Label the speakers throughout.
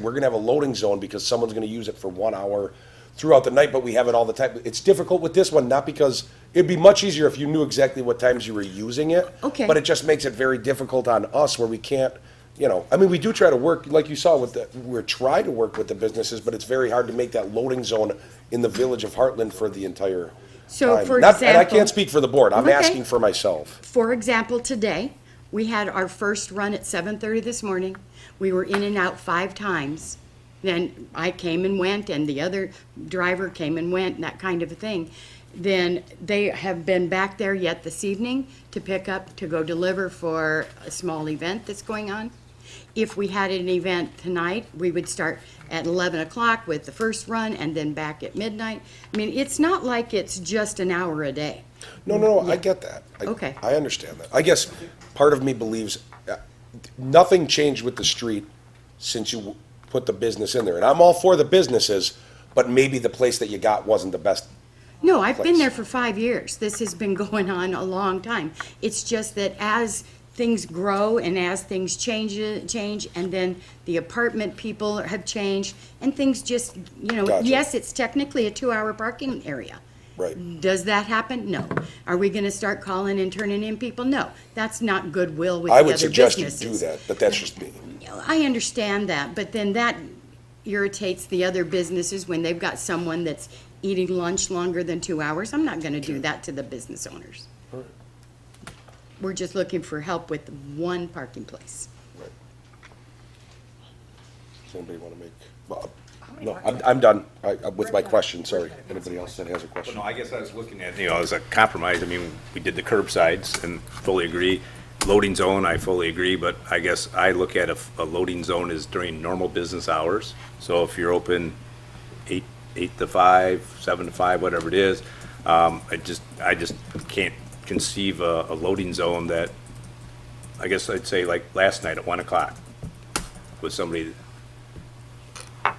Speaker 1: We're gonna have a loading zone because someone's gonna use it for one hour throughout the night, but we have it all the time. It's difficult with this one, not because, it'd be much easier if you knew exactly what times you were using it.
Speaker 2: Okay.
Speaker 1: But it just makes it very difficult on us where we can't, you know, I mean, we do try to work, like you saw with the, we're trying to work with the businesses, but it's very hard to make that loading zone in the village of Heartland for the entire
Speaker 2: So,
Speaker 1: time.
Speaker 2: for
Speaker 1: Not- And I
Speaker 2: example-
Speaker 1: can't speak for the board, I'm
Speaker 2: Okay.
Speaker 1: asking for myself.
Speaker 2: For example, today, we had our first run at 7:30 this morning. We were in and out five times. Then I came and went, and the other driver came and went, and that kind of a thing. Then they have been back there yet this evening to pick up, to go deliver for a small event that's going on. If we had an event tonight, we would start at 11 o'clock with the first run and then back at midnight. I mean, it's not like it's just an hour a day.
Speaker 1: No, no, no, I get that. I-
Speaker 2: Okay.
Speaker 1: I understand that. I guess part of me believes, uh, nothing changed with the street since you w- put the business in there. And I'm all for the businesses, but maybe the place that you got wasn't the best.
Speaker 2: No, I've
Speaker 1: place.
Speaker 2: been there for five years. This has been going on a long time. It's just that as things grow and as things change, change, and then the apartment people have changed, and things just, you know,
Speaker 1: Gotcha.
Speaker 2: yes, it's technically a two-hour parking area.
Speaker 1: Right.
Speaker 2: Does that happen? No. Are we gonna start calling and turning in people? No. That's not goodwill with the
Speaker 1: I
Speaker 2: other
Speaker 1: would
Speaker 2: businesses.
Speaker 1: suggest you do that, but that's just me.
Speaker 2: I understand that, but then that irritates the other businesses when they've got someone that's eating lunch longer than two hours. I'm not gonna do that to the business owners. We're just looking for help with one parking place.
Speaker 1: Right. Does anybody want to make, well, no, I'm, I'm done I- uh, with my question, sorry. Anybody else that has a
Speaker 3: But
Speaker 1: question?
Speaker 3: no, I guess I was looking at, you know, as a compromise, I mean, we did the curbsides and fully agree. Loading zone, I fully agree, but I guess I look at a, a loading zone as during normal business hours. So if you're open eight, eight to five, seven to five, whatever it is, um, I just, I just can't conceive a, a loading zone that, I guess I'd say like last night at one o'clock with somebody,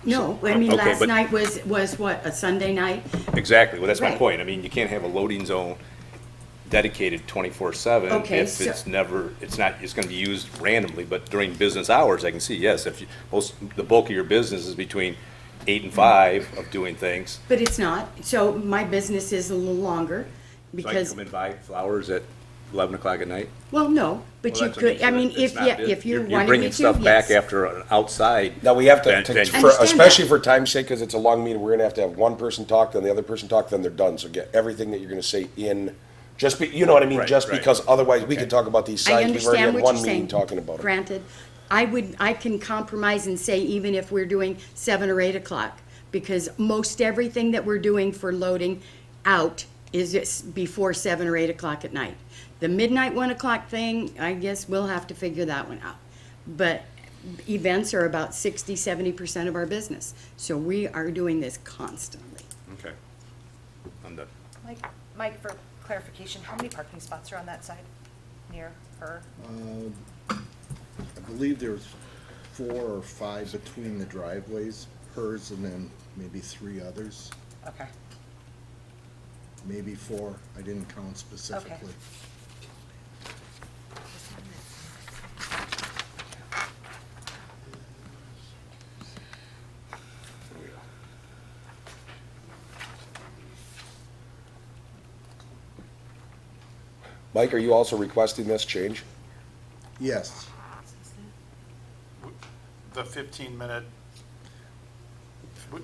Speaker 2: No, I mean,
Speaker 3: Okay,
Speaker 2: last
Speaker 3: but-
Speaker 2: night was, was what, a Sunday night?
Speaker 3: Exactly, well, that's my
Speaker 2: Right.
Speaker 3: point, I mean, you can't have a loading zone dedicated twenty-four seven
Speaker 2: Okay,
Speaker 3: if
Speaker 2: so-
Speaker 3: it's never, it's not, it's gonna be used randomly, but during business hours, I can see, yes, if you, most, the bulk of your business is between eight and five of doing things.
Speaker 2: But it's not, so my business is a little longer
Speaker 3: So I can
Speaker 2: because,
Speaker 3: come and buy flowers at eleven o'clock at night?
Speaker 2: well, no, but
Speaker 3: Well,
Speaker 2: you
Speaker 3: that's what I'm
Speaker 2: could, I
Speaker 3: saying,
Speaker 2: mean,
Speaker 3: it's
Speaker 2: if,
Speaker 3: not
Speaker 2: yeah,
Speaker 3: bus-
Speaker 2: if you
Speaker 3: you're-
Speaker 2: wanted me to,
Speaker 3: You're bringing stuff back
Speaker 2: yes.
Speaker 3: after an outside.
Speaker 1: Now, we have to,
Speaker 3: ven-
Speaker 1: to-
Speaker 3: venue.
Speaker 1: for-
Speaker 2: Understand that.
Speaker 1: especially for time's sake, because it's a long meeting, we're gonna have to have one person talk, then the other person talk, then they're done. So get everything that you're gonna say in, just be, you know what I mean?
Speaker 3: Right,
Speaker 1: Just
Speaker 3: right.
Speaker 1: because otherwise, we could talk about these
Speaker 2: I
Speaker 1: signs. We've already
Speaker 2: understand
Speaker 1: had
Speaker 2: what you're
Speaker 1: one meeting
Speaker 2: saying.
Speaker 1: talking about it.
Speaker 2: Granted, I would, I can compromise and say even if we're doing seven or eight o'clock, because most everything that we're doing for loading out is it's before seven or eight o'clock at night. The midnight, one o'clock thing, I guess we'll have to figure that one out. But events are about sixty, seventy percent of our business, so we are doing this constantly.
Speaker 3: Okay. I'm done.
Speaker 4: Mike, Mike, for clarification, how many parking spots are on that side, near her?
Speaker 5: I believe there's four or five between the driveways, hers and then maybe three others,
Speaker 4: Okay,
Speaker 5: maybe four, I didn't count specifically.
Speaker 1: Mike, are you also requesting this change?
Speaker 5: Yes,
Speaker 6: the 15-minute,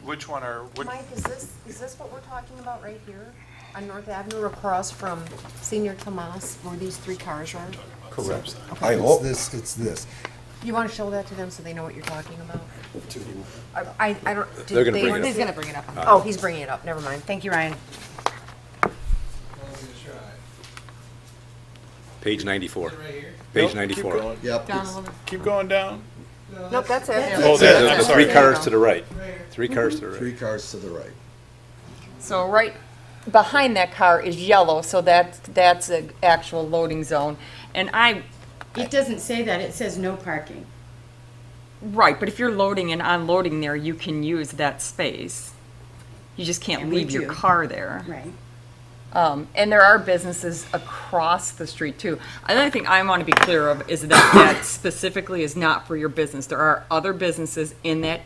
Speaker 6: which one are, which,
Speaker 7: Mike, is this, is this what we're talking about right here on North Avenue across from Senior Tomas where these three cars are?
Speaker 1: Correct. I
Speaker 5: it's
Speaker 1: hope,
Speaker 5: this, it's this.
Speaker 7: You want to show that to them so they know what you're talking about? I, I- I don't. did
Speaker 3: They're gonna
Speaker 7: they-
Speaker 3: bring it up.
Speaker 7: He's gonna bring it up. Oh, he's bringing it up. Never mind. Thank you, Ryan.
Speaker 3: Page ninety-four. Page ninety-four.
Speaker 5: Yep, it's-
Speaker 6: keep going down?
Speaker 7: Nope, that's it.
Speaker 6: Oh, there,
Speaker 3: There's
Speaker 6: I'm
Speaker 3: Three
Speaker 6: sorry.
Speaker 3: cars to the right, three cars to the right.
Speaker 5: three cars to the right.
Speaker 8: So right behind that car is yellow, so that, that's an actual loading zone. And I,
Speaker 2: It doesn't say that, it says no parking.
Speaker 8: right, but if you're loading and unloading there, you can use that space. You just can't
Speaker 2: And we
Speaker 8: leave your
Speaker 2: do.
Speaker 8: car there.
Speaker 2: Right.
Speaker 8: Um, and there are businesses across the street too. Another thing I want to be clear of is that that specifically is not for your business. There are other businesses in that